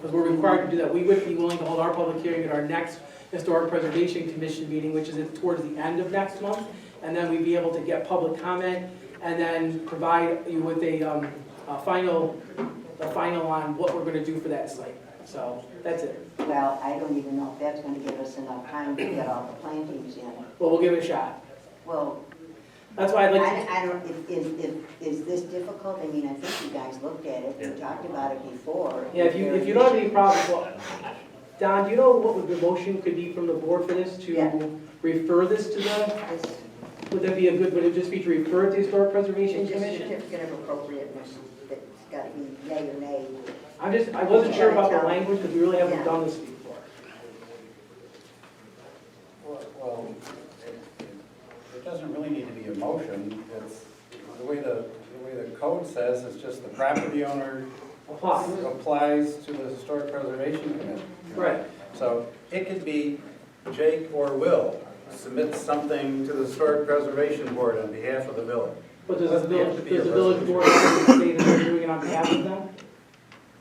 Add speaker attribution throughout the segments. Speaker 1: Because we're required to do that, we would be willing to hold our public hearing at our next Historic Preservation Commission meeting, which is towards the end of next month. And then we'd be able to get public comment and then provide you with a, um, a final, a final on what we're gonna do for that site. So, that's it.
Speaker 2: Well, I don't even know if that's gonna give us enough time to get all the plantings in.
Speaker 1: Well, we'll give it a shot.
Speaker 2: Well,
Speaker 1: That's why I'd like,
Speaker 2: I, I don't, if- is, if, is this difficult? I mean, I think you guys looked at it, we talked about it before.
Speaker 1: to- yeah, if you, if you don't have any problems, well, Don, do you know what the motion could be from the board for this?
Speaker 2: Yeah.
Speaker 1: To refer this to the,
Speaker 2: This-
Speaker 1: would that be a good, would it just be to refer it to Historic Preservation
Speaker 2: It's just a
Speaker 1: Commission?
Speaker 2: certificate of appropriateness that's gotta be yay or nay.
Speaker 1: I'm just, I wasn't sure about the language because we really haven't
Speaker 2: Yeah.
Speaker 1: done this before.
Speaker 3: Well, it- it doesn't really need to be a motion, it's, the way the, the way the code says, it's just the property owner
Speaker 1: Apply.
Speaker 2: Mm-hmm.
Speaker 3: applies to the Historic Preservation Commission.
Speaker 1: Right.
Speaker 3: So it could be Jake or Will submits something to the Historic Preservation Board on behalf of the village.
Speaker 1: But does the
Speaker 3: Doesn't have to
Speaker 1: village,
Speaker 3: be
Speaker 1: does the
Speaker 3: a
Speaker 1: village board say that they're doing it on behalf of them?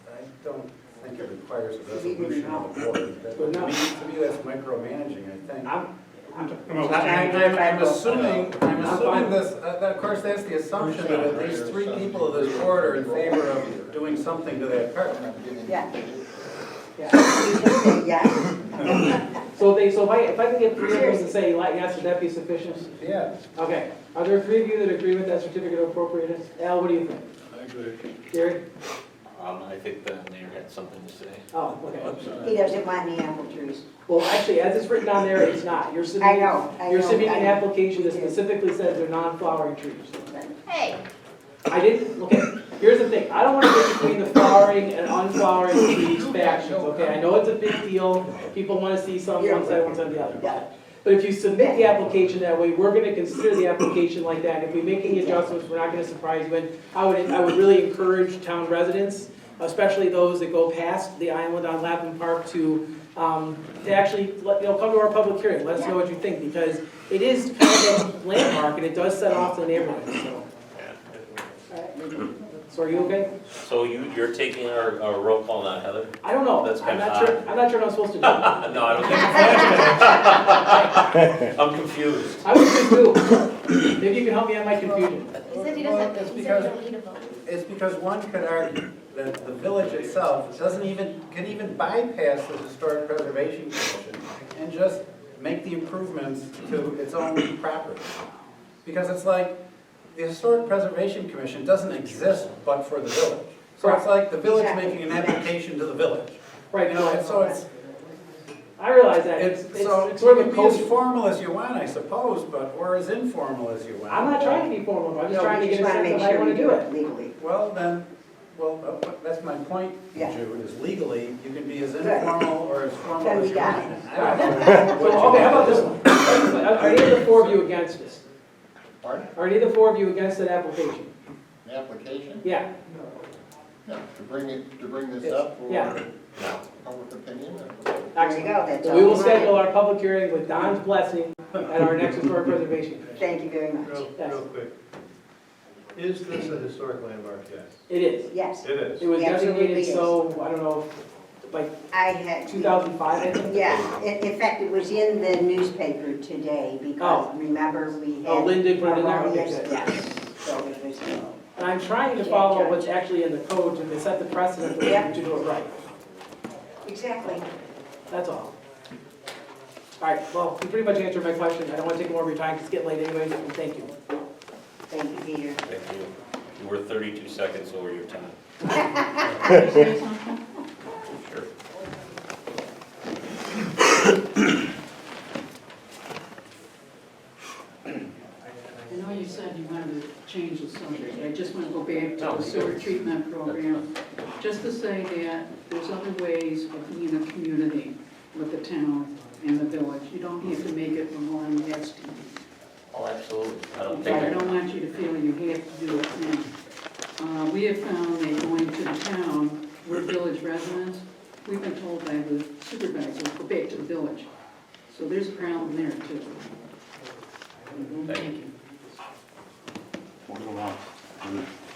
Speaker 3: I don't think it requires a resolution of the board. That- To me, to me, that's micromanaging, I think.
Speaker 1: I'm, I'm,
Speaker 3: I- I- I'm assuming, I'm assuming this, uh, that- of course, that's the assumption that at least three people of this board are in favor of doing something to that park.
Speaker 2: Yeah,
Speaker 1: yeah.
Speaker 2: you just say yes.
Speaker 1: So they, so if I, if I can get three of those to say like yes, would that be sufficient?
Speaker 3: Yeah.
Speaker 1: Okay, are there three of you that agree with that certificate of appropriateness? Al, what do you think?
Speaker 4: I agree.
Speaker 1: Gary?
Speaker 5: Um, I think the mayor had something to say.
Speaker 1: Oh, okay.
Speaker 2: He doesn't want any apple trees.
Speaker 1: Well, actually, as it's written on there, it's not. You're submitting.
Speaker 2: I know, I know.
Speaker 1: You're submitting an
Speaker 2: I-
Speaker 1: application that specifically says they're non-flowering trees.
Speaker 6: Hey,
Speaker 1: I didn't, okay, here's the thing, I don't wanna get between the flowering and unflowering trees factions, okay? I know it's a big deal, people wanna see some on one side, one side on the other. but- But if you submit the application that way, we're gonna consider the application like that, if we make any adjustments, we're not gonna surprise you. And I would, I would really encourage town residents, especially those that go past the island on Lapham Park to, um, to actually, let- you know, come to our public hearing, let us know what you think, because it is kind of a landmark, and it does set off the neighborhood, so. So are you okay?
Speaker 5: So you, you're taking our, our roll call now, Heather?
Speaker 1: I don't know.
Speaker 5: That's
Speaker 1: I'm
Speaker 5: kind
Speaker 1: not
Speaker 5: of
Speaker 1: sure, I'm not sure what I'm supposed to do.
Speaker 5: Uh, No, I don't think. I'm confused.
Speaker 1: I was confused. Maybe you can help me out my confusion.
Speaker 6: he said he
Speaker 3: Well,
Speaker 6: doesn't,
Speaker 3: that's
Speaker 6: he said he
Speaker 3: because,
Speaker 6: don't need a vote.
Speaker 3: it's because one could argue that the village itself doesn't even, can even bypass the Historic Preservation Commission and just make the improvements to its own property. Because it's like, the Historic Preservation Commission doesn't exist but for the village. So it's like the village making an application to the village.
Speaker 1: Right,
Speaker 3: You know,
Speaker 1: no,
Speaker 3: and so it's,
Speaker 1: I realize that. It's,
Speaker 3: it's,
Speaker 1: it's,
Speaker 3: so
Speaker 1: it's
Speaker 3: you
Speaker 1: sort of
Speaker 3: can
Speaker 1: a
Speaker 3: be as
Speaker 1: culture.
Speaker 3: formal as you want, I suppose, but, or as informal as you want.
Speaker 1: I'm not trying to be formal, I'm just
Speaker 3: No,
Speaker 1: trying to
Speaker 2: We
Speaker 1: get
Speaker 2: just
Speaker 1: a
Speaker 2: wanna
Speaker 1: sense of
Speaker 2: make
Speaker 1: how you
Speaker 2: sure we
Speaker 1: wanna
Speaker 2: do
Speaker 1: do
Speaker 2: it
Speaker 1: it.
Speaker 2: legally.
Speaker 3: Well, then, well, uh, that's my point,
Speaker 2: Yeah.
Speaker 3: Jude, is legally, you can be as informal or as formal
Speaker 2: Then we
Speaker 3: as you
Speaker 2: got
Speaker 3: want.
Speaker 2: it.
Speaker 3: I don't know what you
Speaker 1: So, okay, how about
Speaker 3: want.
Speaker 1: this one? Are are any of the four of you against this?
Speaker 7: Pardon?
Speaker 1: Are any of the four of you against that application?
Speaker 7: An application?
Speaker 1: Yeah,
Speaker 7: No, to bring it, to bring this up
Speaker 1: Yeah.
Speaker 7: for
Speaker 5: No.
Speaker 7: public opinion?
Speaker 2: There you
Speaker 1: excellent.
Speaker 2: go, that's all.
Speaker 1: We will
Speaker 2: want.
Speaker 1: schedule our public hearing with Don's blessing at our next historic preservation. Commission.
Speaker 2: Thank you very much.
Speaker 8: Real, real quick. Is this a historic landmark? Yes.
Speaker 1: It is.
Speaker 2: Yes,
Speaker 8: It is.
Speaker 1: It was
Speaker 2: It absolutely
Speaker 1: designated
Speaker 2: is.
Speaker 1: so, I don't know, like
Speaker 2: I had.
Speaker 1: 2005, I think?
Speaker 2: Yeah, in, in fact, it was in the newspaper today because remember we had.
Speaker 1: Oh, Lynn did put it in there? Okay,
Speaker 2: erroneous-
Speaker 1: good.
Speaker 2: Yes, so it was, uh,
Speaker 1: And I'm trying to follow what's actually in the code to set the precedent
Speaker 2: Yeah.
Speaker 1: to to do it right.
Speaker 2: exactly.
Speaker 1: That's all. All right, well, you pretty much answered my question. I don't want to take more of your time, 'cause it's getting late anyway, and thank you.
Speaker 2: Thank you, Peter.
Speaker 5: Thank you. You were thirty-two seconds over your time. Sure.
Speaker 9: I know you said you wanted to change the subject, I just want to go back
Speaker 5: Oh,
Speaker 9: to the sewer treatment program, just to say that there's other ways of being a community with the town and the village. You don't have to make it Malone Gaston.
Speaker 5: Oh, absolutely. I don't
Speaker 9: But
Speaker 5: think.
Speaker 9: I don't want you to feel you have to do it now. Uh, we have found that going to the town, we're village residents, we've been told by the supervisor, go back to the village. So there's a problem there too.
Speaker 5: Thank
Speaker 9: you.
Speaker 10: We'll go on.